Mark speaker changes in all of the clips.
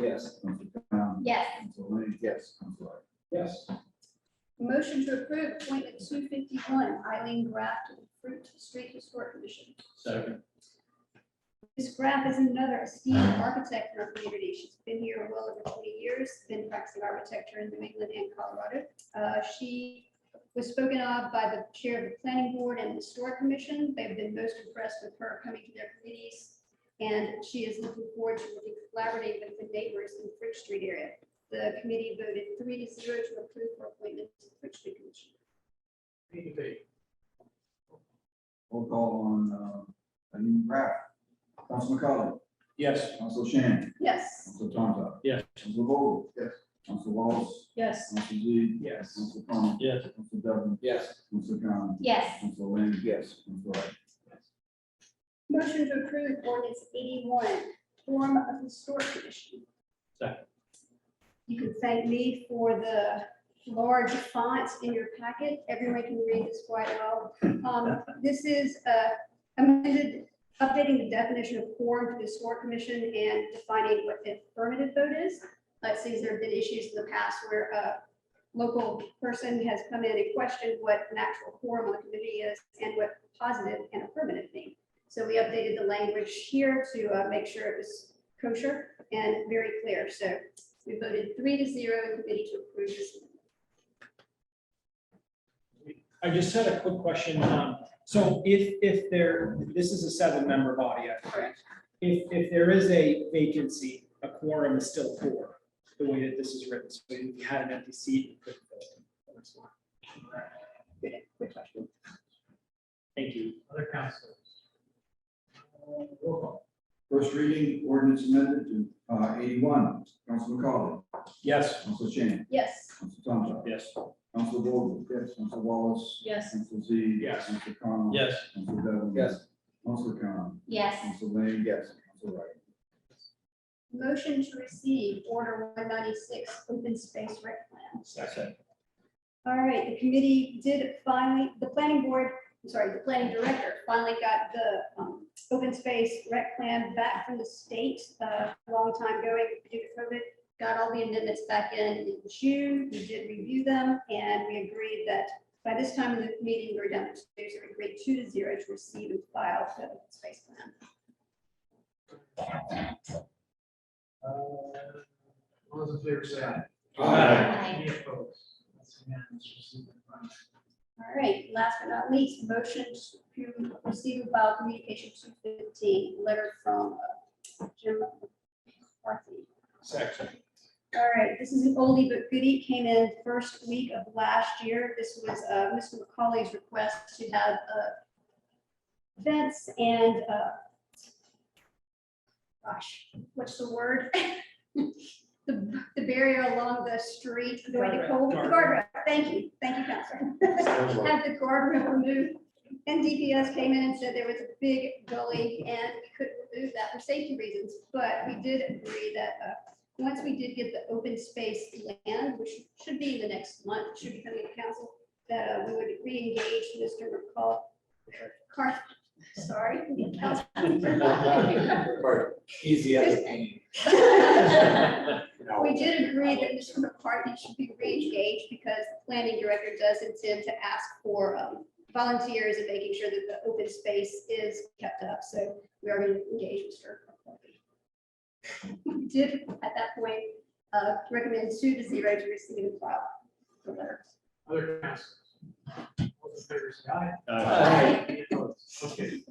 Speaker 1: Yes.
Speaker 2: Council Brown.
Speaker 3: Yes.
Speaker 2: Council Lane.
Speaker 1: Yes.
Speaker 2: Council Ivey.
Speaker 1: Yes.
Speaker 3: Motion to approve appointment two fifty-one, Eileen Graff to the Fruit Street Historic Commission.
Speaker 4: Second.
Speaker 3: Ms. Graff is another esteemed architect in our community. She's been here well over twenty years, been practicing architecture in New England and Colorado. Uh, She was spoken of by the chair of the planning board and the historic commission. They've been most impressed with her coming to their committees. And she is looking forward to really collaborating with the neighbors in the Bridge Street area. The committee voted three to zero to approve her appointment to the Bridge Street Commission.
Speaker 2: Roll call on, uh, Eileen Pratt. Council McCollum.
Speaker 4: Yes.
Speaker 2: Council Shan.
Speaker 3: Yes.
Speaker 2: Council Tonto.
Speaker 4: Yes.
Speaker 2: Council Vogel. Yes. Council Wallace.
Speaker 3: Yes.
Speaker 2: Council Z.
Speaker 1: Yes.
Speaker 2: Council Con.
Speaker 4: Yes.
Speaker 2: Council Devon.
Speaker 1: Yes.
Speaker 2: Council Con.
Speaker 3: Yes.
Speaker 2: Council Lane.
Speaker 1: Yes.
Speaker 2: Council Ivey.
Speaker 3: Motion to approve ordinance eighty-one, form of historic commission.
Speaker 4: Second.
Speaker 3: You can thank me for the large fonts in your packet. Everyone can read this quite well. Um, This is uh, amended, updating the definition of quorum for the historic commission and defining what the affirmative vote is. Let's see, there have been issues in the past where a local person has come in and questioned what an actual quorum on the committee is and what positive and affirmative mean. So we updated the language here to uh, make sure it was kosher and very clear. So we voted three to zero in committee to approve this.
Speaker 4: I just had a quick question. Um, so if, if there, this is a seven-member body, I think. If, if there is a vacancy, a quorum is still four, the way that this is written. So if you had an empty seat, you couldn't fill it.
Speaker 3: Good question.
Speaker 4: Thank you.
Speaker 5: Other councilors?
Speaker 2: Roll call. First reading ordinance amended to, uh, eighty-one. Council McCollum.
Speaker 4: Yes.
Speaker 2: Council Shan.
Speaker 3: Yes.
Speaker 2: Council Tonto.
Speaker 4: Yes.
Speaker 2: Council Vogel. Yes. Council Wallace.
Speaker 3: Yes.
Speaker 2: Council Z.
Speaker 4: Yes.
Speaker 2: Council Con.
Speaker 4: Yes.
Speaker 2: Council Devon.
Speaker 1: Yes.
Speaker 2: Council Con.
Speaker 3: Yes.
Speaker 2: Council Lane.
Speaker 1: Yes.
Speaker 2: Council Ivey.
Speaker 3: Motion to receive order one ninety-six, open space rec plan.
Speaker 4: Second.
Speaker 3: All right, the committee did finally, the planning board, I'm sorry, the planning director finally got the um, open space rec plan back from the state, uh, a long time going due to COVID. Got all the amendments back in in June, we did review them, and we agreed that by this time in the meeting, we we're down to two, so we agreed two to zero to receive and file the open space plan.
Speaker 5: All those in favor say aye.
Speaker 4: Aye.
Speaker 5: Any opposed? That's unanimous, received and filed.
Speaker 3: All right, last but not least, motion to receive about communication two fifteen, letter from uh, Jim McCarthy.
Speaker 4: Second.
Speaker 3: All right, this is an oldie but goodie, came in first week of last year. This was uh, Mr. McCauley's request to have uh, events and, uh, gosh, what's the word? The the barrier along the street going to Cole, the guardrail, thank you, thank you, Counselor. had the guardrail removed. And DPS came in and said there was a big gully and we couldn't remove that for safety reasons, but we did agree that, uh, once we did get the open space land, which should be in the next month, should be coming to council, that uh, we would re-engage Mr. McCall, Car, sorry.
Speaker 1: Easy
Speaker 3: as a We did agree that Mr. McCarthy should be re-engaged because the planning director does intend to ask for um, volunteers and making sure that the open space is kept up. So we are going to engage Mr. McCarthy. We did, at that point, uh, recommend two to zero to receive and file the letter.
Speaker 5: Other councilors? All those in favor say aye.
Speaker 3: Aye.
Speaker 5: Any opposed? Okay.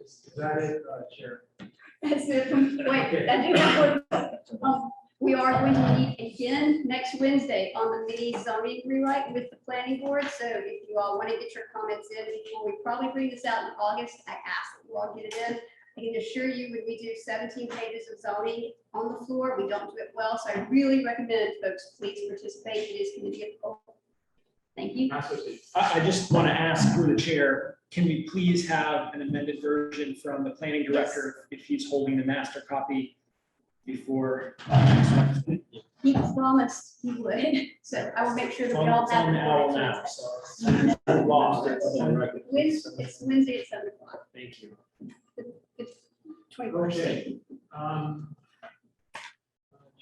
Speaker 5: Is that it, uh, Chair?
Speaker 3: That's it. Wait, I do have one. Um, We are going to meet again next Wednesday on the mini zoning rewrite with the planning board. So if you all want to get your comments in before we probably bring this out in August, I ask that you all get it in. I can assure you, when we do seventeen pages of zoning on the floor, we don't do it well. So I really recommend folks, please participate. It is going to be a poll. Thank you.
Speaker 5: Councilor Steve?
Speaker 4: I, I just want to ask through the chair, can we please have an amended version from the planning director if he's holding the master copy before?
Speaker 3: He promised he would. So I will make sure that we all
Speaker 4: It's
Speaker 3: have.
Speaker 4: on the
Speaker 3: it.
Speaker 4: owl now, so it's lost.
Speaker 3: Wednesday, it's Wednesday at seven o'clock.
Speaker 4: Thank you.
Speaker 3: It's twenty-four.
Speaker 5: Okay. Um,